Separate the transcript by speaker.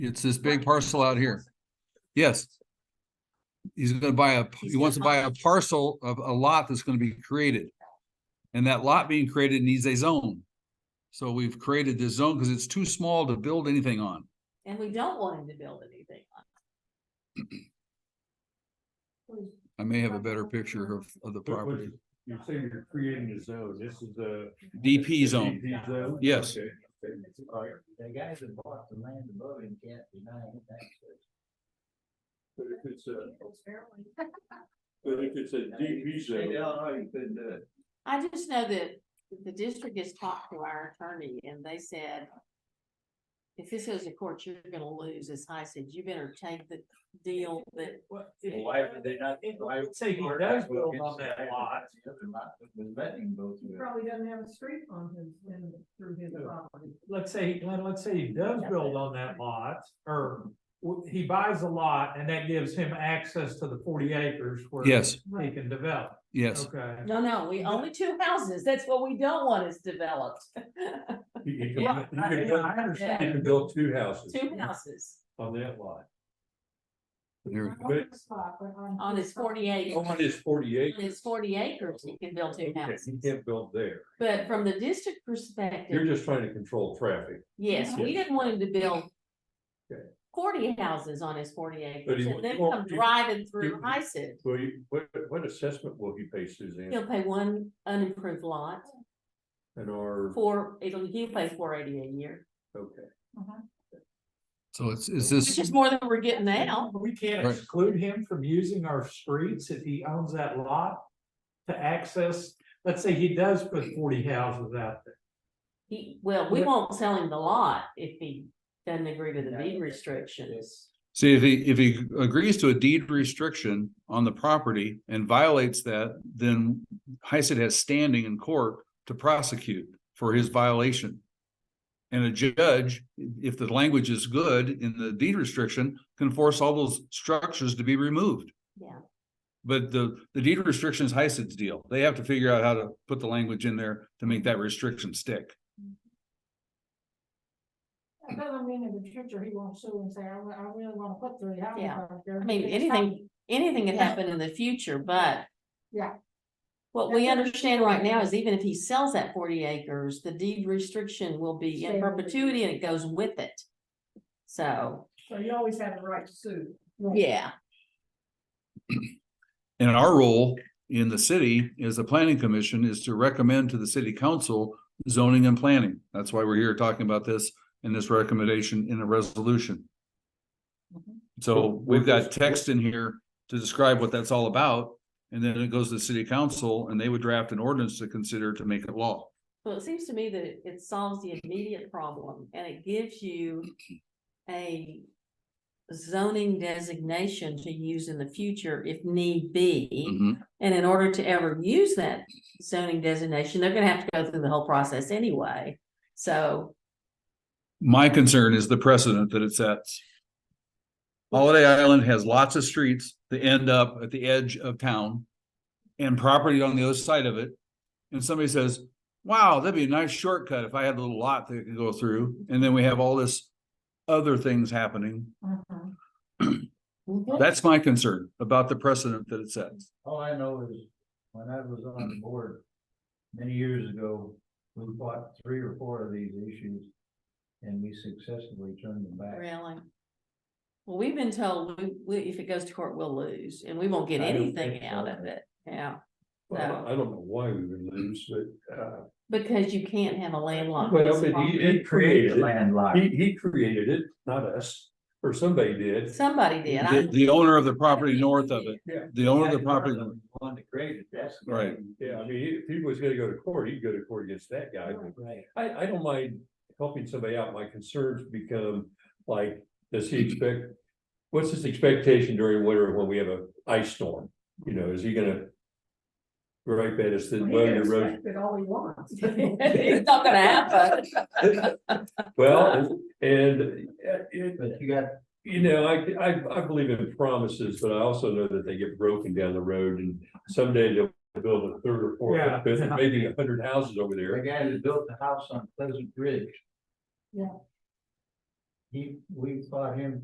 Speaker 1: It's this big parcel out here. Yes. He's gonna buy a, he wants to buy a parcel of a lot that's gonna be created. And that lot being created needs a zone. So we've created this zone because it's too small to build anything on.
Speaker 2: And we don't want him to build anything on. it.
Speaker 1: I may have a better picture of, of the
Speaker 3: But what
Speaker 1: property.
Speaker 3: you- You're saying you're creating a zone, this is the.
Speaker 1: DP zone.
Speaker 3: DP zone?
Speaker 1: Yes.
Speaker 3: Okay. Okay. All right.
Speaker 4: The guys that bought the land above him can't deny it, that's.
Speaker 3: But if it's a, but if it's a DP
Speaker 4: State
Speaker 3: zone,
Speaker 4: Illinois, you couldn't do it.
Speaker 2: I just know that the district has talked to our attorney and they said. If this goes to court, you're gonna lose, as I said, you better take the deal that,
Speaker 4: Why would they not?
Speaker 5: If-
Speaker 4: why would-
Speaker 5: say he
Speaker 4: why
Speaker 5: does
Speaker 4: would
Speaker 5: build
Speaker 4: it
Speaker 5: on that
Speaker 4: say
Speaker 5: lot.
Speaker 4: The other lot, that was letting go
Speaker 5: He
Speaker 4: through.
Speaker 5: probably doesn't have a street on his, in, through his
Speaker 3: Yeah.
Speaker 5: property.
Speaker 3: let's say, Glenn, let's say he does build on that lot, or w- he buys a lot and that gives him access to the forty acres where.
Speaker 1: Yes,
Speaker 3: He can develop,
Speaker 1: yes.
Speaker 3: okay.
Speaker 2: no, no, we only two houses, that's what we don't want is developed,
Speaker 3: He
Speaker 2: can- Yeah, he can build-
Speaker 3: I understand,
Speaker 2: yeah.
Speaker 3: he can build two houses
Speaker 2: two houses
Speaker 3: on that lot.
Speaker 1: There-
Speaker 2: on his forty acres.
Speaker 3: On his forty
Speaker 2: On his
Speaker 3: acres.
Speaker 2: forty acres, he can build two
Speaker 3: Okay,
Speaker 2: houses,
Speaker 3: He can't build there,
Speaker 2: but from the district
Speaker 3: you're
Speaker 2: perspective,
Speaker 3: just trying to control traffic,
Speaker 2: yes, we didn't want him to build.
Speaker 3: Okay.
Speaker 2: Forty houses on his forty acres,
Speaker 3: he
Speaker 2: and
Speaker 3: won't-
Speaker 2: then
Speaker 3: he won't
Speaker 2: come
Speaker 3: do-
Speaker 2: driving through
Speaker 3: he-
Speaker 2: ISID,
Speaker 3: will you, what, what assessment will he pay Suzanne?
Speaker 2: he'll pay one unimproved lot.
Speaker 3: And our,
Speaker 2: Four, it'll, he pays four eighty a year,
Speaker 3: okay.
Speaker 1: So it's, is
Speaker 2: which is
Speaker 1: this,
Speaker 2: more than we're getting now.
Speaker 6: We can't
Speaker 1: Right.
Speaker 6: exclude him from using our streets if he owns that lot to access, let's say he does put forty houses out there.
Speaker 2: He, well, we
Speaker 6: Yeah.
Speaker 2: won't sell him the lot if he doesn't agree to the deed
Speaker 4: Yeah.
Speaker 2: restrictions.
Speaker 4: Yes.
Speaker 1: see, if he, if he agrees to a deed restriction on the property and violates that, then Hyacinth has standing in court to prosecute for his violation. And a judge, if the language is good in the deed restriction, can force all those structures to be removed.
Speaker 2: Yeah.
Speaker 1: But the, the deed restriction is Hyacinth's deal. They have to figure out how to put the language in there to make that restriction stick.
Speaker 5: That doesn't mean in the future he won't sue and say, I, re- I really wanna put three houses
Speaker 2: Yeah.
Speaker 5: out there.
Speaker 2: I mean,
Speaker 5: It's
Speaker 2: anything, anything can
Speaker 5: Yeah.
Speaker 2: happen in the future, but.
Speaker 5: Yeah.
Speaker 2: What we understand right now is even if he sells that forty acres, the deed restriction will be in
Speaker 5: Stay with it.
Speaker 2: perpetuity and it goes with it. So,
Speaker 5: So you always have the right to sue.
Speaker 2: yeah,
Speaker 1: And our role in the city is the planning commission is to recommend to the city council zoning and planning. That's why we're here talking about this and this recommendation in a resolution. So we've got text in here to describe what that's all about. And then it goes to the city council and they would draft an ordinance to consider to make it law.
Speaker 2: well, it seems to me that it- it solves the immediate problem and it gives you a. Zoning designation to use in the future if need be.
Speaker 4: Mm-hmm.
Speaker 2: And in order to ever use that zoning designation, they're gonna have to go through the whole process anyway. So,
Speaker 1: My concern is the precedent that it sets. Holiday Island has lots of streets that end up at the edge of town and property on the other side of it. And somebody says, wow, that'd be a nice shortcut if I had a little lot that I could go through. And then we have all this other things happening.
Speaker 5: Mhm.
Speaker 1: That's my concern about the precedent that it sets.
Speaker 4: All I know is, when I was on the board many years ago, we fought three or four of these issues. And we successfully turned them back.
Speaker 2: really. Well, we've been told, we, we, if it goes to court, we'll lose and we won't get
Speaker 4: I don't
Speaker 2: anything
Speaker 4: think
Speaker 2: out
Speaker 4: so.
Speaker 2: of it. Yeah,
Speaker 3: Well, I don't know why we would lose, but, uh,
Speaker 2: because you can't have a landlocked.
Speaker 3: Well,
Speaker 2: piece of
Speaker 3: but
Speaker 2: property.
Speaker 3: It created-
Speaker 4: landlocked.
Speaker 3: he, he created it, not us, or somebody did.
Speaker 2: Somebody did. I-
Speaker 1: The, the owner of the property north of it,
Speaker 3: Yeah.
Speaker 1: the owner of the property,
Speaker 4: Wanted to create it, that's. the
Speaker 1: Right.
Speaker 4: thing.
Speaker 3: Yeah, I mean, if he was gonna go to court, he'd go to court against that guy. but
Speaker 4: Right.
Speaker 3: I, I don't mind helping somebody out. My concerns become like, does he expect? What's his expectation during winter when we have a ice storm? You know, is he gonna? Gripe at us that,
Speaker 5: He
Speaker 3: well,
Speaker 5: can
Speaker 3: your road,
Speaker 5: expect it all he wants.
Speaker 2: It's not gonna happen.
Speaker 3: well, and- and uh, it,
Speaker 4: But you got
Speaker 3: You know, I, I, I believe in promises, but I also know that they get broken down the road and someday they'll build a third or fourth,
Speaker 6: Yeah.
Speaker 3: or fifth, or maybe a hundred houses over
Speaker 4: the
Speaker 3: there.
Speaker 4: guy that built the house on Pleasant Ridge.
Speaker 5: Yeah.
Speaker 4: he, we fought him